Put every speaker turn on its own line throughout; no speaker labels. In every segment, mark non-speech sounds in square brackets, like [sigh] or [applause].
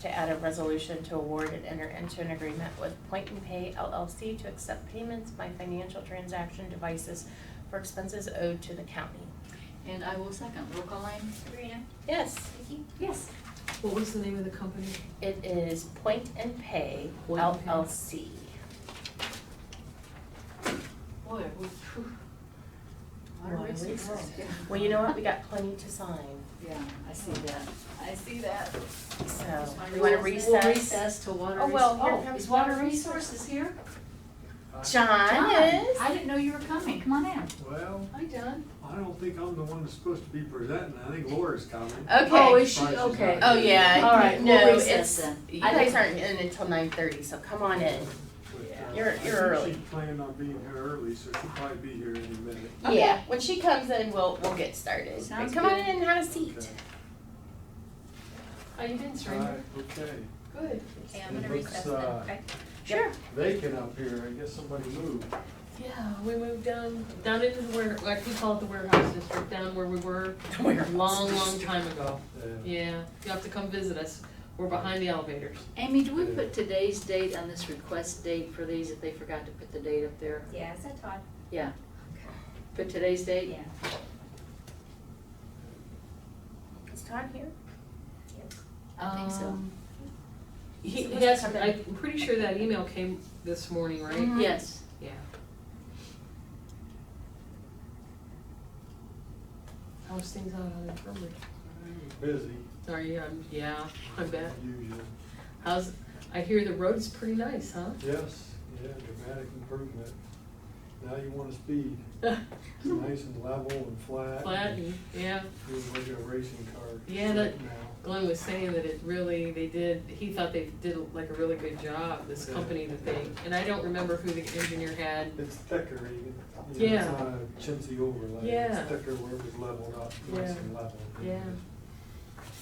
to add a resolution to award and enter into an agreement with Point and Pay LLC to accept payments by financial transaction devices for expenses owed to the county.
And I will second. Roll call Amy?
Sabrina,
Yes,
Vicky,
Yes.
What was the name of the company?
it is Point and Pay
Point and Pay.
LLC.
Boy, we, phew. What a
What a
race we
race.
drove. [laughs]
Well, you know what, we got plenty to sign,
Yeah, I see that. I see that.
so
My
we wanna
rules.
recess.
We'll recess to water.
Oh,
res-
well, here
oh,
comes
Is water
water
resources here?
John is.
I didn't know you were coming. Come on in.
Well,
Hi, John.
I don't think I'm the one that's supposed to be presenting. I think Laura's coming.
Okay.
Oh, is she?
Surprise is not
Okay.
here.
Oh, yeah.
All right,
no,
we'll
it's-
recess then.
You
I
guys
think,
aren't in until nine thirty, so come on in.
But, uh,
Oh, You're- you're
I think
early.
She planned on being here early, so she'll probably be here any minute.
Okay.
Yeah, when she comes in, we'll, we'll get started. But
Sounds
Come on
good.
in and have a
Okay.
seat.
How you been,
All right, okay.
Good.
okay, I'm gonna
It looks,
recess then,
uh,
okay?
Sure. [laughs]
Vacant up here. I guess somebody moved. uh,
Yeah, we moved down, down into the ware, like we call it the warehouse district, down where we were a long, long time ago.
Uh,
Yeah, you have to come visit us. We're behind the elevators.
Amy, do we put today's date on this request date for these if they forgot to put the date up there?
Yeah, is that Todd?
Yeah. Put today's date?
Yeah.
Is Todd here?
I think so.
Um, He,
So what's
he asked,
coming?
I'm pretty sure that email came this morning, right?
Yes.
Yeah. How's things out on the infirmary?
Busy,
Are you, um, yeah, I bet.
usual.
How's, I hear the road's pretty nice, huh?
Yes, yeah, dramatic improvement. Now you want to speed. It's nice and level and flat.
Flat and, yeah.
Feels like a racing car.
Yeah,
right
that-
now.
Glenn was saying that it really, they did, he thought they did like a really good job, this
Yeah.
company that they, and I don't remember who the engineer had.
It's thicker even.
Yeah.
It's not a chintzy overlay.
Yeah.
It's thicker where it was leveled up,
Yeah.
nice and level.
Yeah.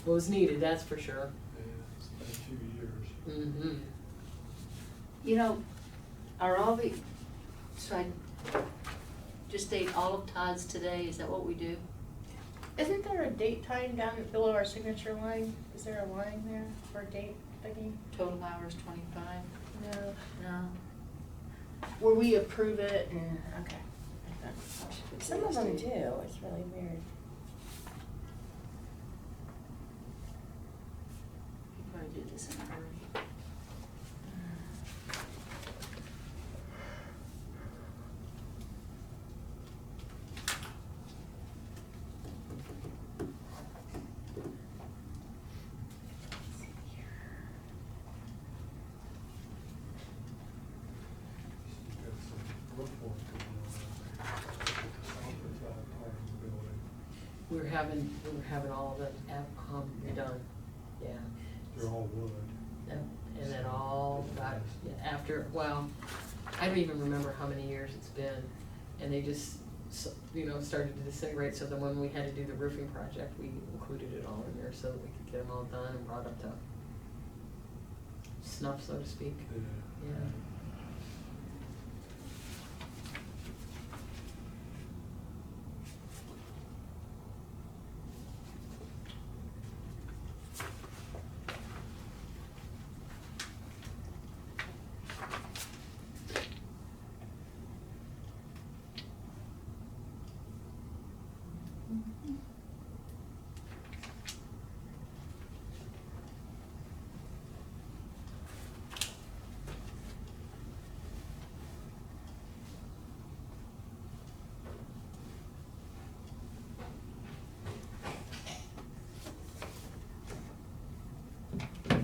What was needed, that's for sure.
Yeah, it's been a few years.
Mm-hmm.
You know, are all the, so I just date all of Todd's today, is that what we do?
Isn't there a date time down below our signature line? Is there a line there for a date thingy?
Total hours twenty-five?
No.
No.
Where we approve it and, okay.
I should put
Some of them
today's
do,
date.
it's really weird.
You probably did this in a hurry.
She's got some roof work going on. Office out part of the building.
We were having, we were having all of it, at- um, done, yeah.
They're all wood.
And and then all got, yeah, after, well, I don't even remember how many years it's been. And they just, s- you know, started to disintegrate, so then when we had to do the roofing project, we included it all in there so that we could get them all done and brought up to snuff, so to speak.
Yeah.
Yeah.